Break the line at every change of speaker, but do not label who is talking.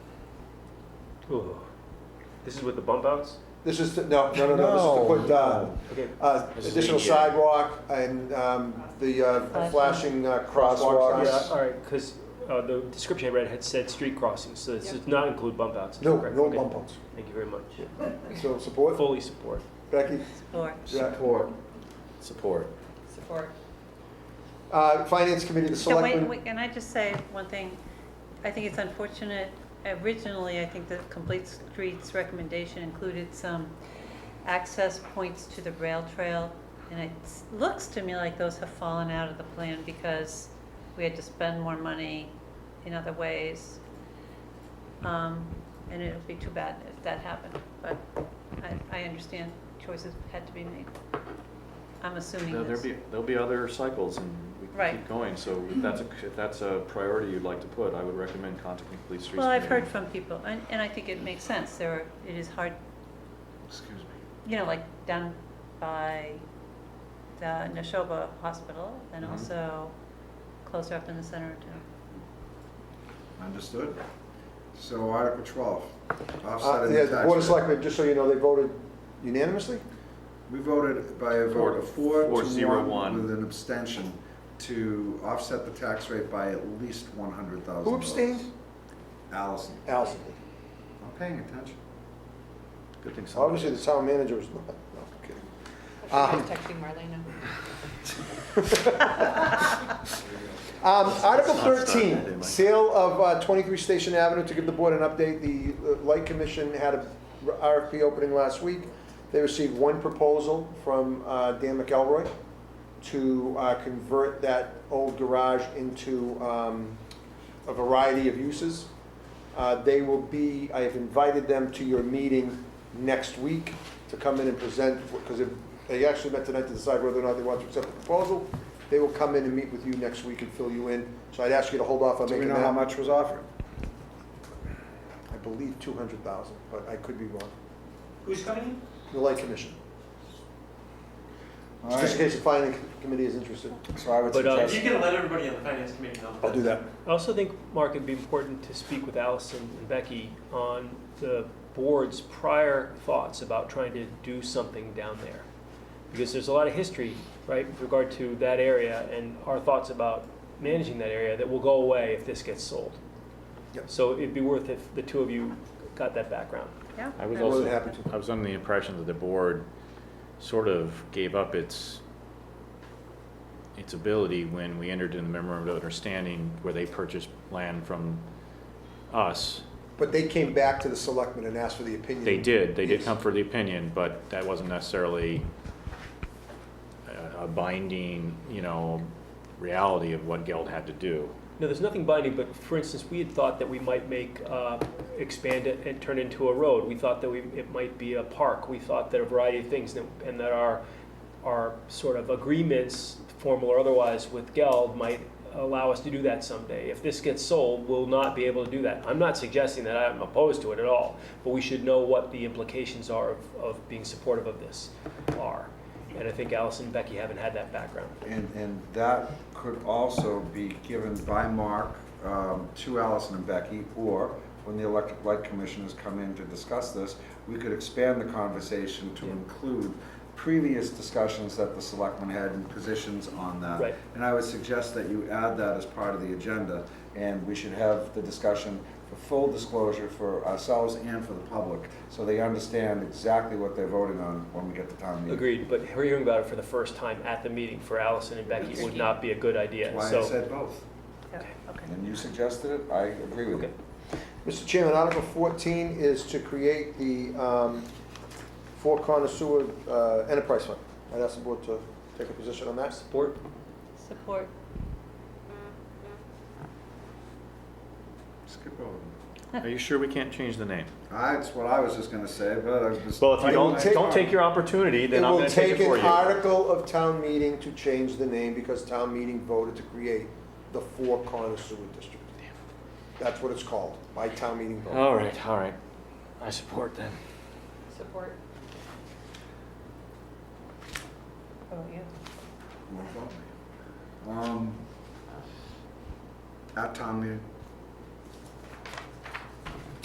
Ooh. This is with the bump outs?
This is, to- no, no, no, no, this is to put uh,
Okay.
uh,
This is E
additional
ADA.
sidewalk and um, the uh, flashing uh, crosswalk
Yeah,
signs.
all right, because the description I read had said street crossings, so this does not include bump outs. is
No,
correct?
no
Okay.
bump outs.
Thank you very much.
So support,
Fully support.
Becky?
Or
Yeah.
Support. Support.
support.
Uh, Finance Committee, the
So wait,
selectmen,
wait, can I just say one thing? I think it's unfortunate, originally, I think the Complete Streets recommendation included some access points to the rail trail, and it s- looks to me like those have fallen out of the plan because we had to spend more money in other ways. Um, And it would be too bad if that happened, but I, I understand choices had to be made. I'm assuming
There'll
this.
be, there'll be other cycles and we can
Right.
keep going, so if that's a, if that's a priority you'd like to put, I would recommend contacting the police.
Well, I've heard
committee.
from people, and, and I think it makes sense, there are, it is hard,
Excuse me.
you know, like down by the Neshoba Hospital, and
Mhm.
also closer up in the center of town.
Understood. So Article 12,
uh,
offsetting
yeah,
the
the
tax
Board of
rate.
Selectmen, just so you know, they voted unanimously?
We voted by a vote of four
Four
to
zero
one
one.
with an abstention to offset the tax rate by at least 100,000 votes.
Who abstained?
Allison.
Allison.
I'm paying attention.
Good thing somebody
Obviously, the
is.
town manager was not, no, I'm kidding.
Ah.
Um,
texting Marlena.
Um, Article
not start that day,
13,
Mike.
sale of uh, 23 Station Avenue, to give the board an update, the uh, Light Commission had a RFP opening last week. They received one proposal from uh, Dan McElroy to uh, convert that old garage into um, a variety of uses. Uh, They will be, I have invited them to your meeting next week to come in and present, because they actually met tonight to decide whether or not they want to accept the proposal. They will come in and meet with you next week and fill you in. So I'd ask you to hold off on
Do we
making
know
that.
how much was offered?
I believe two hundred thousand, but I could be wrong.
Who's coming in?
The Light Commission,
All
just in
right,
case the planning committee is interested.
so I would
But, uh,
If you
suggest,
can let everybody on the finance committee know.
I'll do that.
I also think, Mark, it'd be important to speak with Allison and Becky on the board's prior thoughts about trying to do something down there. Because there's a lot of history, right, with regard to that area and our thoughts about managing that area that will go away if this gets sold.
Yep.
So it'd be worth if the two of you got that background.
Yeah?
I was
More than
also,
happy to.
I was under the impression that the board sort of gave up its, its ability when we entered in the memorandum of understanding where they purchased land from us.
But they came back to the selectmen and asked for the opinion.
They did, they
Mm-hmm.
did
Yes.
come for the opinion, but that wasn't necessarily a- a binding, you know, reality of what Geld had to do.
No, there's nothing binding, but for instance, we had thought that we might make, uh, expand it and turn it into a road. We thought that we, it might be a park. We thought that a variety of things that- and that our, our sort of agreements, formal or otherwise, with Geld might allow us to do that someday. If this gets sold, we'll not be able to do that. I'm not suggesting that I'm opposed to it at all, but we should know what the implications are of, of being supportive of this are. And I think Allison and Becky haven't had that background.
and, and that could also be given by Mark um, to Allison and Becky, or when the electric light commissioners come in to discuss this, we could expand the conversation to
Yeah.
include previous discussions that the selectmen had and positions on that.
Right.
And I would suggest that you add that as part of the agenda, and we should have the discussion for full disclosure for ourselves and for the public, so they understand exactly what they're voting on when we get to town meeting.
Agreed, but hearing about it for the first time at the meeting for Allison and Becky would not be a good idea,
That's why I
so.
said both.
Yeah, okay.
And you suggested it, I agree with you.
Okay.
Mr. Chairman, Article fourteen is to create the, um, Fort Connoisseur, uh, Enterprise Fund. I'd ask the board to take a position on that.
Support?
Support.
Skip over them.
Are you sure we can't change the name?
That's what I was just gonna say, but I was just.
Well, if you
It will
don't,
take-
don't take your opportunity, then I'm gonna take it
will
for
take an
you.
article of town meeting to change the name because town meeting voted to create the Four Corners Sewer District. That's what it's called, by town meeting vote.
All right, all right. I support then.
Support.
Oh, yeah.
Um, At town meeting,